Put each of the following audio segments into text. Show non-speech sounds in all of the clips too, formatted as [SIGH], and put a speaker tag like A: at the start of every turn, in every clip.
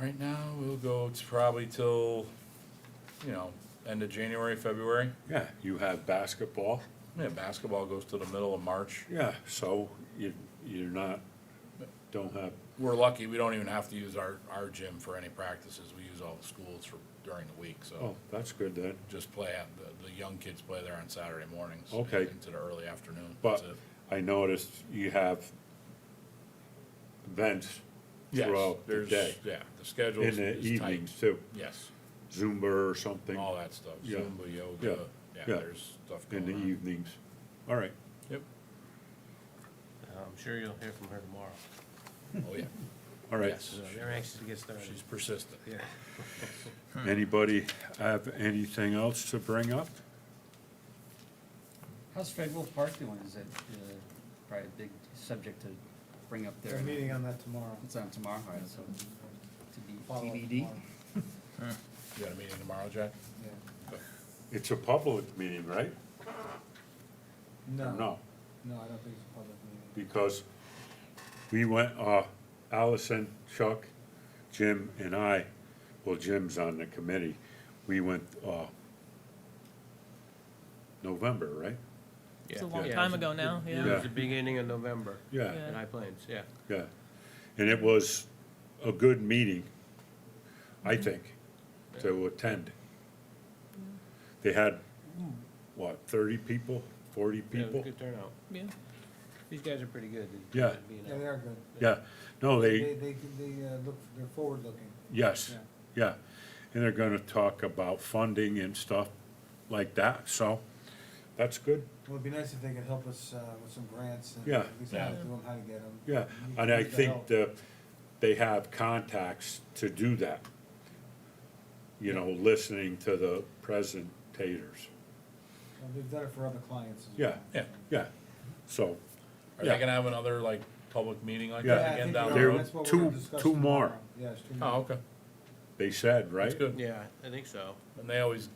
A: Right now, we'll go to probably till, you know, end of January, February.
B: Yeah, you have basketball,
A: Yeah, basketball goes to the middle of March.
B: yeah, so you, you're not, don't have,
A: We're lucky, we don't even have to use our, our gym for any practices. We use all the schools for, during the week, so
B: oh, that's good then.
A: just play, at- the, the young kids play there on Saturday mornings.
B: Okay.
A: Into the early afternoon.
B: But
A: That's it.
B: I noticed you have events
A: Yes,
B: throughout the
A: there's-
B: day,
A: Yeah, the schedule
B: in
A: is
B: the
A: is tight.
B: evenings too,
A: Yes,
B: Zumba or something
A: all that stuff,
B: Yeah.
A: Zumba,
B: Yeah.
A: yoga, yeah,
B: Yeah.
A: there's stuff
B: in
A: going
B: the e-
A: on.
B: evenings. All right,
A: Yep,
C: I'm sure you'll hear from her tomorrow.
A: oh, yeah,
B: [LAUGHS] all right.
A: Yes.
C: So they're anxious to get started.
A: she's persistent.
C: Yeah.
B: Anybody have anything else to bring up?
D: How's Fred Wolf Park doing? Is that uh, probably a big subject to bring up there?
E: They're meeting on that tomorrow.
D: It's on tomorrow, all right, so to be
E: Follow up
D: TBD.
E: tomorrow.
A: You got a meeting tomorrow, Jack?
E: Yeah.
B: It's a public meeting, right?
E: No.
B: No,
E: No, I don't think it's a public meeting.
B: because we went, uh, Allison, Chuck, Jim and I, well, Jim's on the committee, we went, uh, November, right?
C: It's
F: a long time ago now,
C: It
F: yeah.
C: was the beginning of November.
B: Yeah,
F: Yeah.
C: In High Plains, yeah.
B: yeah. And it was a good meeting, I
C: Mm-hmm.
B: think, to attend. They had, what, thirty people, forty
C: Yeah, it was a
B: people?
C: Good turnout.
F: Yeah.
C: These guys are pretty good. at
B: Yeah.
C: being
E: Yeah,
C: out.
E: they are good.
B: Yeah, no,
E: They, they, they, uh, look, they're forward-looking.
B: Yes,
E: Yeah.
B: yeah, and they're gonna talk about funding and stuff like that, so that's good,
E: Well, it'd be nice if they could help us, uh, with some grants and
B: Yeah.
E: at least
A: Yeah.
E: how to do them, how to get them.
B: yeah. And I think that they have contacts to do that. You know, listening to the presentators,
E: They've done it for other clients as
B: Yeah.
E: well.
A: Yeah.
B: yeah, so,
A: Are they
B: Yeah.
A: gonna have another, like, public meeting like
B: Yeah.
E: Yeah, I
A: that again
E: think
A: down
E: we
A: the
E: are.
A: road?
E: That's what we're
B: Two-
E: gonna discuss
B: two more.
E: tomorrow. Yeah, it's two more.
A: Oh, okay,
B: they said,
A: that's
B: right?
A: good.
C: Yeah, I think so.
A: And they always,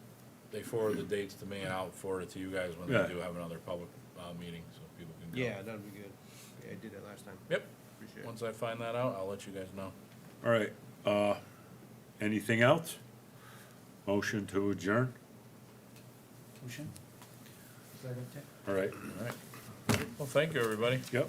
A: they forward the dates to me and I'll forward it to you guys when
B: Yeah.
A: they do have another public, uh, meeting, so people can go.
C: Yeah, that'd be good. Yeah, I did that last time.
A: Yep,
C: Appreciate it.
A: once I find that out, I'll let you guys know.
B: All right, uh, anything else? Motion to adjourn,
D: Motion?
E: Second.
B: all right,
A: Oh. All right. Well, thank you, everybody.
B: yep.